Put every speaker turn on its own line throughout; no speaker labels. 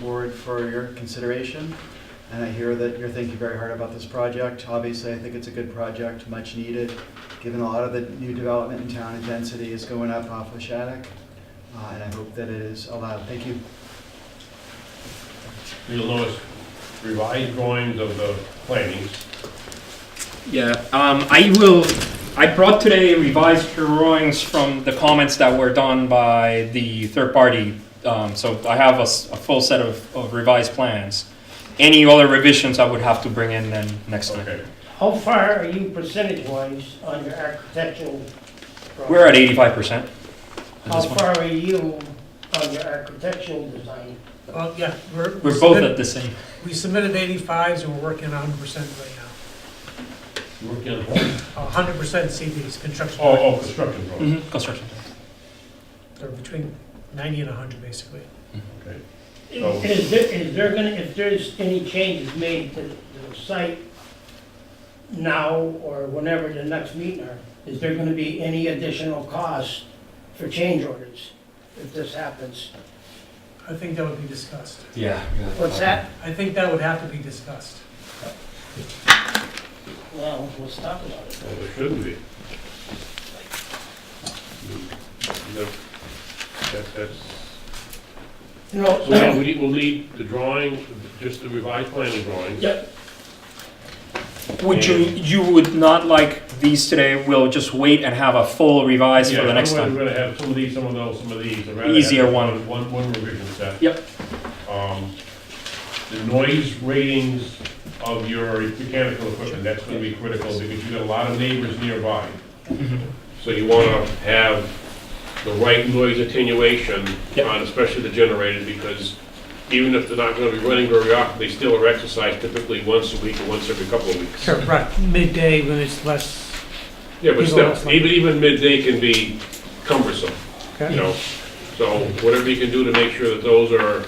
board for your consideration. And I hear that you're thinking very hard about this project. Obviously, I think it's a good project, much needed, given a lot of the new development in town and density is going up off of Shattuck. Uh, And I hope that it is allowed. Thank you.
You'll notice revised drawings of the plantings.
Yeah, um, I will, I brought today revised drawings from the comments that were done by the third party. Um, so I have a, s- a full set of, of revised plans. Any other revisions I would have to bring in then next time.
Okay,
How far are you percentage-wise on your architectural? drawing?
We're at eighty-five percent.
How far are you on your architectural design?
Well, yeah, we're. we
We're both
submit-
at the same.
We submitted eighty-fives and we're working hundred percent right now.
working on, oh,
hundred percent CDs, construction.
oh, construction drawings,
Mhm, Construction.
They're between ninety and hundred basically.
okay. Oh.
Is there, is there gonna, if there's any changes made to the site now or whenever the next meeting are, is there gonna be any additional cost for change orders if this happens?
I think that would be discussed.
Yeah.
What's that?
I think that would have to be discussed.
Well, let's talk about it.
Well, it Oh, shouldn't be. No, that- that's,
You
so yeah,
know,
we need- we'll need the drawing, just the revised planning drawings.
Yeah.
Would you, you would not like these today, we'll just wait and have a full revise for the next
Yeah, otherwise
time.
We're gonna have some of these, some of those, some of these. I'd rather have
Easier one.
One, one revision set.
Yep.
Um, The noise ratings of your mechanical equipment, that's gonna be critical, because you've got a lot of neighbors nearby.
Mm-hmm.
So you wanna have the right noise attenuation
Yep.
on especially the generators, because even if they're not gonna be running very often, they still are exercised typically once a week or once every couple of weeks.
Sure, right, midday when it's less.
Yeah, but
People don't
still,
like-
even, even midday can be cumbersome you know, so whatever you can do to make sure that those are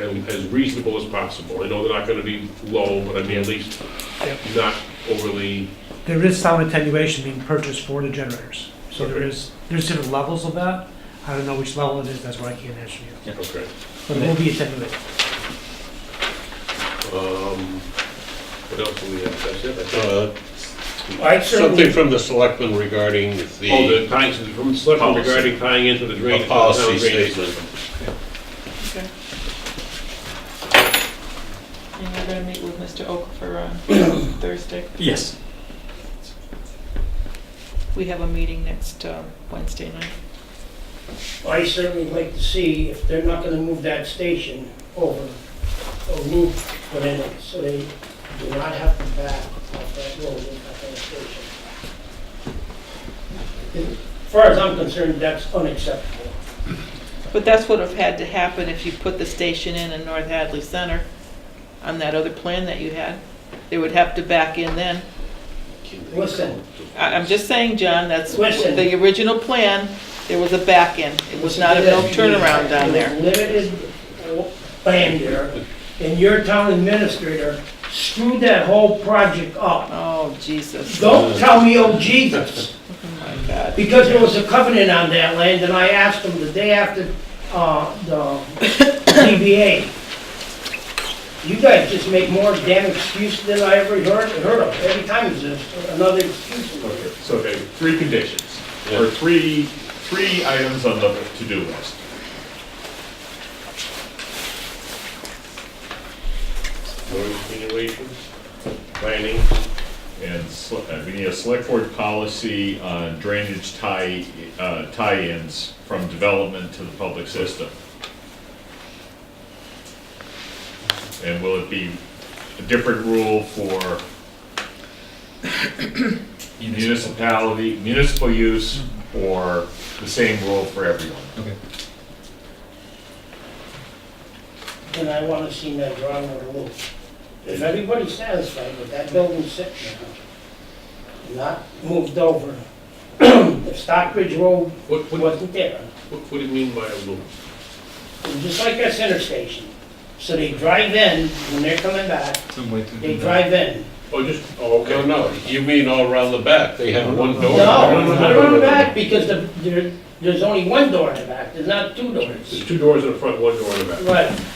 as as reasonable as possible. I know they're not gonna be low, but I mean, at least
Yep.
not overly,
There is some attenuation being purchased for the generators. So there
Okay.
is, there's different levels of that. I don't know which level it is, that's why I can't answer you.
okay.
But it will be attenuated.
Um, What else do we have? That's it, I think.
Uh,
I
Something
certainly,
from the selectmen regarding
Oh,
the,
the tying, from Selectmen
Policy.
regarding tying into the drainage.
A policy
the town drainage
statement.
system.
And we're gonna meet with Mr. Okafor on Thursday.
Yes.
We have a meeting next uh, Wednesday night.
I certainly like to see if they're not gonna move that station over, a loop put in it, so they do not have to back off that road and cut that station. As far as I'm concerned, that's unacceptable.
But that's what have had to happen if you put the station in in North Hadley Center on that other plan that you had. They would have to back in then.
Listen,
I, I'm just saying, John, that's
Listen.
the original plan, there was a back in. It was not a no turnaround down there.
Limited land there, and your town administrator screwed that whole project up.
Oh, Jesus. Oh,
Don't tell me, oh Jesus.
my God.
Because there was a covenant on that land, and I asked them the day after, uh, the ZBA, you guys just make more damn excuses than I ever heard, heard of. Every time there's another excuse.
So, okay, three conditions,
Yeah.
or three, three items on the to-do list.
Road attenuations, planning,
And sl- uh, we need a select board policy on drainage tie, uh, tie-ins from development to the public system. And will it be a different rule for municipality, municipal use, or the same rule for everyone?
Okay.
And I wanna see that drawing on the roof. If everybody's satisfied with that building sitting there, not moved over, if Stockbridge Road
what, what,
wasn't there,
what what do you mean by a loop?
just like that center station. So they drive in, when they're coming back, they drive in.
Oh, just, oh, okay.
no, no, you mean all around the back, they have one door.
No, I run back because the, there, there's only one door in the back, there's not two
There's
doors.
two doors in the front, one door in the back.
Right.